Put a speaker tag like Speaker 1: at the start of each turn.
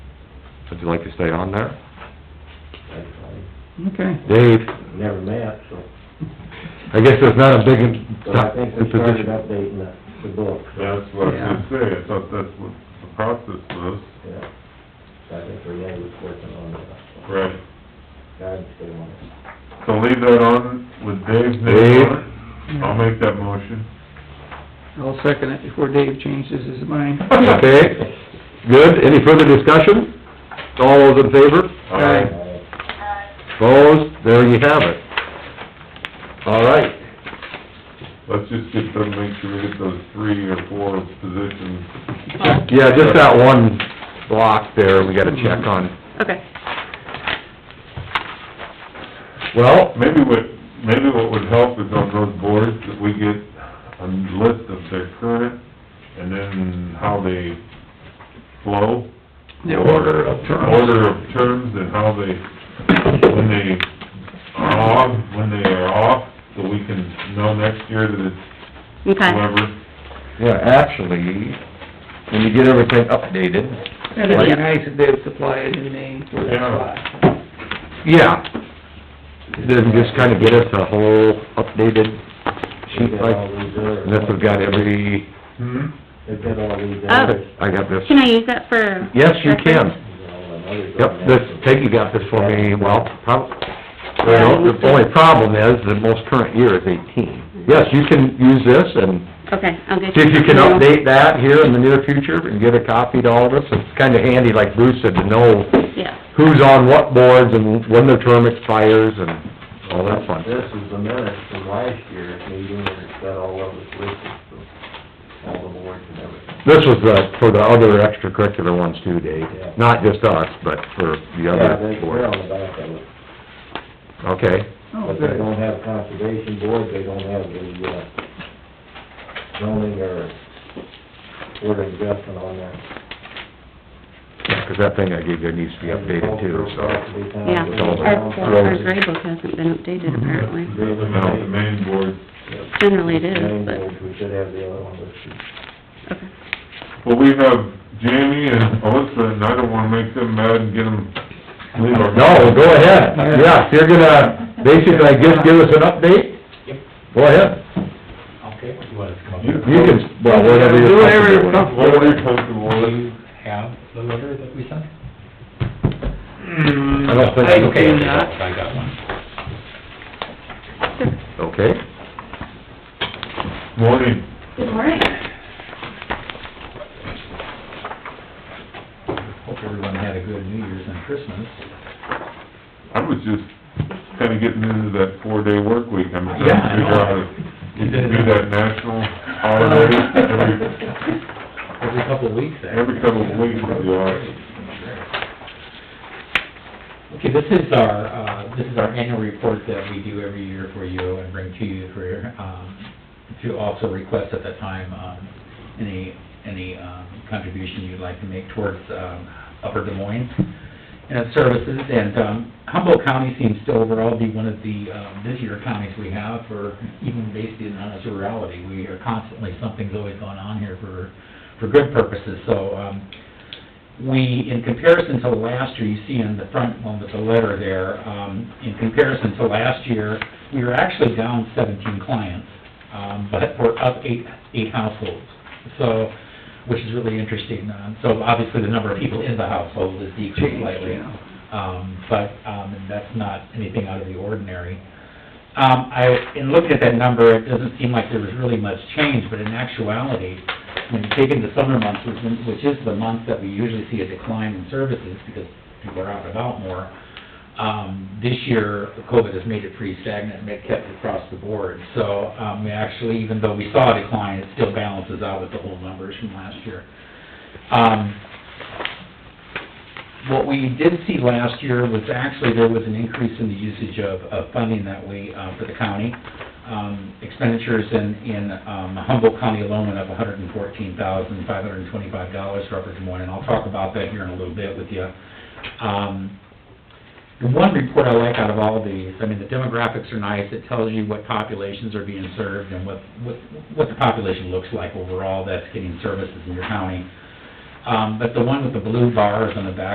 Speaker 1: Would you like to stay on there?
Speaker 2: I
Speaker 3: Okay.
Speaker 1: Dave,
Speaker 2: never met, so,
Speaker 1: I guess there's not a big...
Speaker 2: but I think we
Speaker 1: position.
Speaker 2: started updating the, the book.
Speaker 4: That's what I was gonna say, I thought that's what the process was.
Speaker 2: Yeah. So I think Renee was working on the
Speaker 4: Right.
Speaker 2: guidance they wanted.
Speaker 4: So leave that on with Dave's name on it. I'll make that motion.
Speaker 3: I'll second it before Dave changes his mind.
Speaker 1: Okay, good. Any further discussion? All those in favor?
Speaker 4: Aye.
Speaker 2: Uh,
Speaker 1: Opposed? There you have it. All right.
Speaker 4: Let's just get them, make sure we get those three or four positions.
Speaker 1: Yeah, just that one block there, we gotta check on.
Speaker 5: Okay.
Speaker 1: Well,
Speaker 4: Maybe what, maybe what would help is on those boards that we get a list of their current and then how they flow.
Speaker 3: The order of terms.
Speaker 4: Order of terms and how they, when they are on, when they are off, so we can know next year that it's
Speaker 5: Okay.
Speaker 4: whoever.
Speaker 1: yeah, actually, when you get everything updated,
Speaker 3: And it'd be nice if they would supply it in May for that
Speaker 4: Yeah.
Speaker 3: spot.
Speaker 1: yeah. Then just kinda get us a whole updated
Speaker 2: They
Speaker 1: sheet
Speaker 2: did all
Speaker 1: like,
Speaker 2: these others.
Speaker 1: and this has got every,
Speaker 4: Hmm?
Speaker 2: They did all these
Speaker 5: Oh.
Speaker 2: others.
Speaker 1: I got this.
Speaker 5: Can I use that for?
Speaker 1: Yes, you can.
Speaker 2: You know, and others on
Speaker 1: Yep,
Speaker 2: that.
Speaker 1: this, Peggy got this for me, well, prob, well, the only problem is, the most current year is eighteen. Yes, you can use this and
Speaker 5: Okay, I'll get.
Speaker 1: see if you can update that here in the near future and get a copy to all of us. It's kinda handy, like Bruce said, to know
Speaker 5: Yeah,
Speaker 1: who's on what boards and when their term expires and all that fun.
Speaker 2: This is the minutes from last year's meeting, and it's got all of us listed, so, all the boards and everything.
Speaker 1: This was the, for the other extracurricular ones too, Dave,
Speaker 2: Yeah.
Speaker 1: not just us, but for the
Speaker 2: Yeah,
Speaker 1: other
Speaker 2: they- they're
Speaker 1: boards.
Speaker 2: on the back of it.
Speaker 1: Okay,
Speaker 3: Oh,
Speaker 2: But they
Speaker 3: good.
Speaker 2: don't have conservation board, they don't have the, uh, zoning or order adjustment on there.
Speaker 1: because that thing I gave you needs to be updated too, so.
Speaker 5: yeah.
Speaker 1: With all the
Speaker 5: Our, our
Speaker 1: roads.
Speaker 5: grade book hasn't been updated apparently.
Speaker 4: No, the main board.
Speaker 5: Generally it is,
Speaker 2: Zoning
Speaker 5: but,
Speaker 2: board, We should have the other one listed.
Speaker 5: okay.
Speaker 4: Well, we have Jamie and Alyssa, and I don't wanna make them mad and get them, leave our...
Speaker 1: No, go ahead, yeah, if you're gonna, basically, just give us an update? Go ahead,
Speaker 6: Okay, you want us to come up
Speaker 1: you
Speaker 6: here?
Speaker 1: can, well, whatever
Speaker 3: Do whatever
Speaker 1: you're
Speaker 3: you're
Speaker 1: comfortable with.
Speaker 4: What are you comfortable with?
Speaker 6: Have the letter that we sent?
Speaker 1: I don't think.
Speaker 3: I do not.
Speaker 6: I got one.
Speaker 1: Okay,
Speaker 4: Morning.
Speaker 5: Good morning.
Speaker 6: Hope everyone had a good New Year's and Christmas.
Speaker 4: I was just kinda getting into that four-day work week. I'm trying
Speaker 6: Yeah, I
Speaker 4: to figure
Speaker 6: know.
Speaker 4: out if you can do that national holiday every,
Speaker 6: Every couple of weeks, eh? actually.
Speaker 4: every couple of weeks, it'd be all right.
Speaker 6: Okay, this is our, uh, this is our annual report that we do every year for you and bring to you for, your, um, to also request at that time, um, any, any, um, contribution you'd like to make towards, um, Upper Des Moines and its uh, services. And, um, Humboldt County seems to overall be one of the, um, busier counties we have for even based in on its rurality. We are constantly, something's always going on here for, for good purposes. So, um, we, in comparison to last year, you see in the front one with the letter there, um, in comparison to last year, we were actually down seventeen clients, um, but we're up eight, eight households. So, which is really interesting. Uh, So obviously, the number of people in the household is decreased slightly.
Speaker 3: Yeah.
Speaker 6: Um, but, um, and that's not anything out of the ordinary. Um, I, in looking at that number, it doesn't seem like there was really much change, but in actuality, when you take in the summer months, which is- which is the month that we usually see a decline in services because people are out and about more, um, this year, COVID has made it pretty stagnant and it kept it across the board. So, um, we actually, even though we saw a decline, it still balances out with the whole numbers from last year. Um, what we did see last year was actually there was an increase in the usage of, of funding that we, uh, for the county. Um, expenditures in, in, um, Humboldt County alone went up hundred and fourteen thousand, five hundred and twenty-five dollars for Upper Des Moines, and I'll talk about that here in a little bit with you. Um, the one report I like out of all these, I mean, the demographics are nice, it tells you what populations are being served and what, what, what the population looks like overall that's getting services in your county. Um, but the one with the blue bars on the back